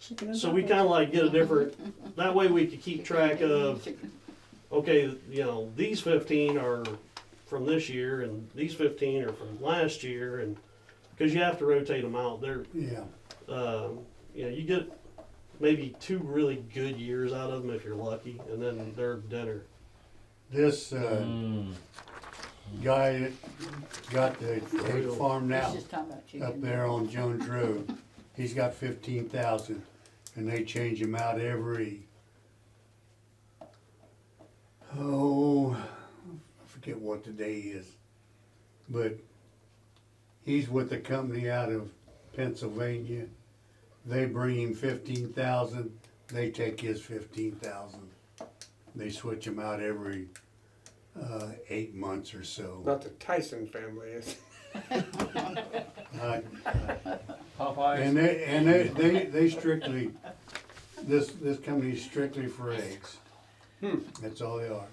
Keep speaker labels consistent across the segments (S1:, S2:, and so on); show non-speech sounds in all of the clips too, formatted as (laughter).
S1: Chicken and
S2: So we
S1: dumplings.
S2: kinda like get a different, that way we could keep track of, okay, you know, these fifteen are from this year and these fifteen are from last year and, cause you have to rotate them out. They're,
S3: Yeah,
S2: um, you know, you get maybe two really good years out of them if you're lucky, and then they're dinner.
S3: this, uh, guy that got the hay farm
S1: He's
S3: now
S1: just talking about chicken.
S3: up there on Jones Road, he's got fifteen thousand, and they change him out every, oh, I forget what the day is, but he's with a company out of Pennsylvania. They bring him fifteen thousand, they take his fifteen thousand. They switch him out every, uh, eight months or so.
S4: Not the Tyson family, is
S3: I-
S5: Popeyes.
S3: And they, and they, they, they strictly, this, this company is strictly for eggs.
S4: Hmm.
S3: That's all they are.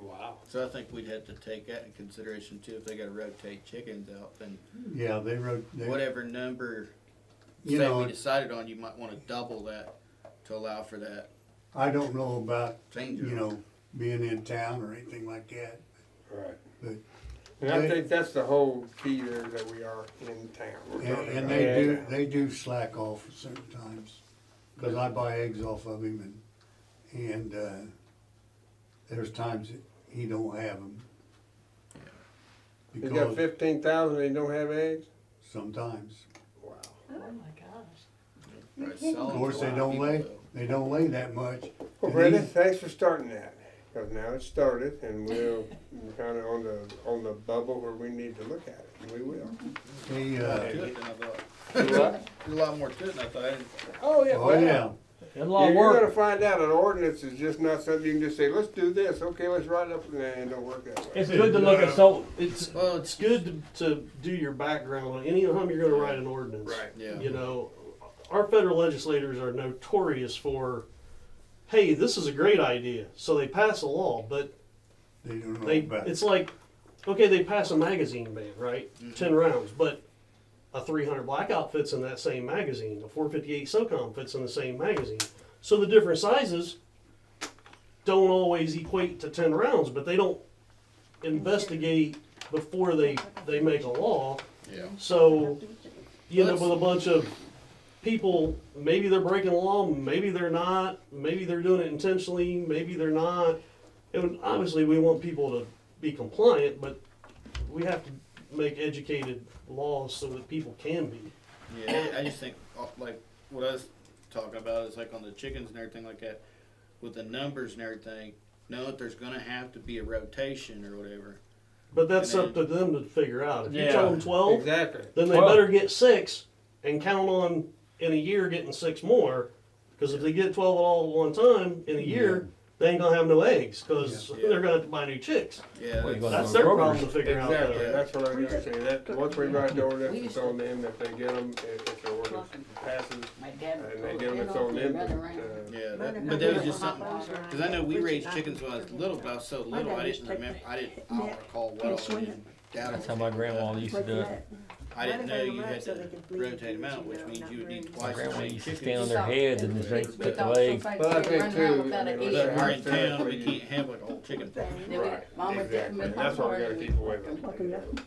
S4: Wow.
S6: So I think we'd have to take that in consideration too, if they gotta rotate chickens out, then
S3: Yeah, they wrote, they,
S6: whatever number,
S3: you
S6: say we
S3: know,
S6: decided on, you might wanna double that to allow for that
S3: I don't know about,
S6: change.
S3: you know, being in town or anything like that.
S4: Right.
S3: But-
S4: And I think that's the whole key there, that we are in town. We're
S3: And,
S4: talking
S3: and
S4: about
S3: they
S4: in
S3: do,
S4: town.
S3: they do slack off at certain times, cause I buy eggs off of him and, and, uh, there's times that he don't have them.
S4: He's got
S3: Because
S4: fifteen thousand, they don't have eggs?
S3: sometimes.
S4: Wow.
S7: Oh my gosh.
S6: Of
S3: Of course, they don't lay, they don't lay that much.
S4: Well,
S3: And
S4: Brenda,
S3: these-
S4: thanks for starting that, because now it's started, and (laughs) we're kind of on the, on the bubble where we need to look at it, and we will.
S3: They,
S6: To
S3: uh,
S6: it than I thought.
S4: What?
S6: There's a lot more to it than I thought. I didn't-
S4: Oh, yeah,
S3: oh yeah,
S4: wow.
S5: That's a lot of
S4: You're gonna
S5: work.
S4: find out an ordinance is just not something you can just say, let's do this, okay, let's write it up, nah, it don't work that way.
S5: It's good to look at, so,
S2: It's uh,
S6: Well,
S2: it's
S6: it's,
S2: good to, to do your background on any time you're going to write an ordinance.
S4: Right.
S6: yeah.
S2: You know, our federal legislators are notorious for, hey, this is a great idea, so they pass a law, but
S3: they don't know
S2: they
S3: about it.
S2: it's like, okay, they pass a magazine ban, right? Ten rounds, but a 300 blackout fits in that same magazine. A 458 SOCOM fits in the same magazine. So the different sizes don't always equate to 10 rounds, but they don't investigate before they they make a law.
S6: Yeah.
S2: So you end up with a bunch of people. Maybe they're breaking the law. Maybe they're not. Maybe they're doing it intentionally. Maybe they're not. And obviously, we want people to be compliant, but we have to make educated laws so that people can be.
S6: Yeah, I just think uh, like what I was talking about is like on the chickens and everything like that, with the numbers and everything. Know that there's gonna have to be a rotation or whatever.
S2: But that's up to them to figure out. If you tell them
S5: Yeah.
S2: twelve,
S4: Exactly.
S2: then they
S5: Well-
S2: better get six and count on in a year getting six more. Because if they get twelve all at one time in a year, they ain't gonna have no eggs because (laughs)
S6: Yeah.
S2: they're gonna have to buy new chicks.
S6: Yeah,
S5: Well,
S6: that's-
S5: you gotta-
S2: That's their problem to figure out.
S4: Exactly,
S2: though.
S4: that's what I'm gonna say, that, once we write the ordinance, it's on them, if they get them, if, if the ordinance passes,
S1: My dad would
S4: and
S1: throw
S4: they
S1: a
S4: get them,
S1: pin
S4: it's
S1: off
S4: on
S1: and
S4: them.
S1: run
S4: to-
S1: around.
S4: to-
S6: yeah. That, but that was just something because I know we raised chickens when I was little, but I was so little I didn't remember. I didn't. I don't recall what all. I didn't. doubt
S5: That's
S6: it.
S5: how my grandma used to do it.
S6: I didn't know you had
S8: So they
S6: to
S8: could breed
S6: rotate them out,
S8: chickens,
S6: which
S8: you know,
S6: means
S8: not
S6: you would
S8: breed.
S6: need
S5: My
S6: twice as
S5: grandma
S6: many
S5: used to stand
S6: chickens.
S5: on their heads and just they put the legs.
S4: But I think too, uh, I mean,
S6: But
S4: their-
S6: we're in town, we can't have like a whole chicken farm.
S4: uh, Right,
S1: Mama did
S4: exactly,
S1: with
S4: and that's what we gotta
S1: popcorn.
S4: keep away from.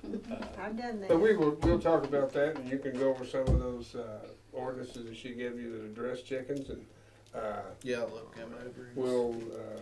S8: I've done
S4: But
S8: that.
S4: we will, we'll talk about that, and you can go over some of those, uh, ordinances that she gave you that address chickens, and, uh,
S6: Yeah, look, come over.
S4: we'll, uh,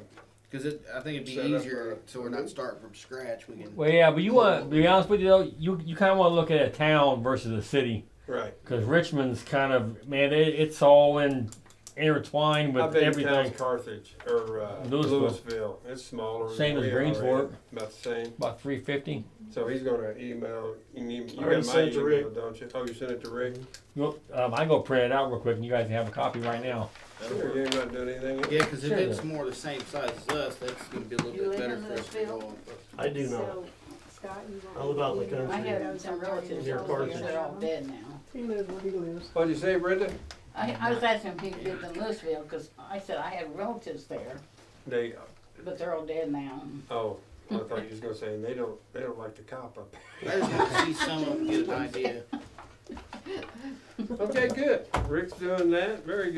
S6: Because it, I think it'd
S4: Set
S6: be
S4: up
S6: easier,
S4: a-
S6: so we're not starting from scratch, we can.
S5: Well, yeah, but you want, to be honest with you though, you, you kind of want to look at a town versus a city.
S4: right.
S5: Because Richmond's kind of, man, it, it's all in, intertwined
S4: I
S5: with
S4: think town's
S5: everything.
S4: Carthage, or, uh,
S5: Louisville.
S4: Louisville, it's smaller. than
S5: Same as
S4: we are, right?
S5: Greensport.
S4: About the same.
S5: About 350.
S4: So he's gonna email, you need, you
S2: already
S4: got my
S2: sent it to
S4: email,
S2: Rick.
S4: don't you? Oh, you sent it to Rick?
S5: Well, Um, I go print it out real quick and you guys have a copy right now.
S6: that'll
S4: Sure,
S6: work.
S4: you ain't not doing anything.
S6: Yeah, because if
S5: Sure.
S6: it's more the same size as us, that's gonna be a
S1: You
S6: little
S1: live
S6: bit better
S1: in
S6: for us to
S1: Louisville?
S6: go on.
S2: I do not.
S8: So, Scott, you want.
S2: I live out in the
S8: you know,
S1: I
S2: country.
S8: those
S1: have some
S8: are
S1: relatives
S2: Near
S1: over
S2: Carthage.
S1: here, they're all dead now.
S8: He lives where he lives.
S4: What'd you say, Brenda?
S1: I, I was asking if he lived in Louisville, cause I said I had relatives there,
S4: They,
S1: but they're all dead now.
S4: oh, I thought you was gonna say, and they don't, they don't like the cop up.
S6: I just want to see some of them get an idea.
S4: Okay, good. Rick's doing that, very good.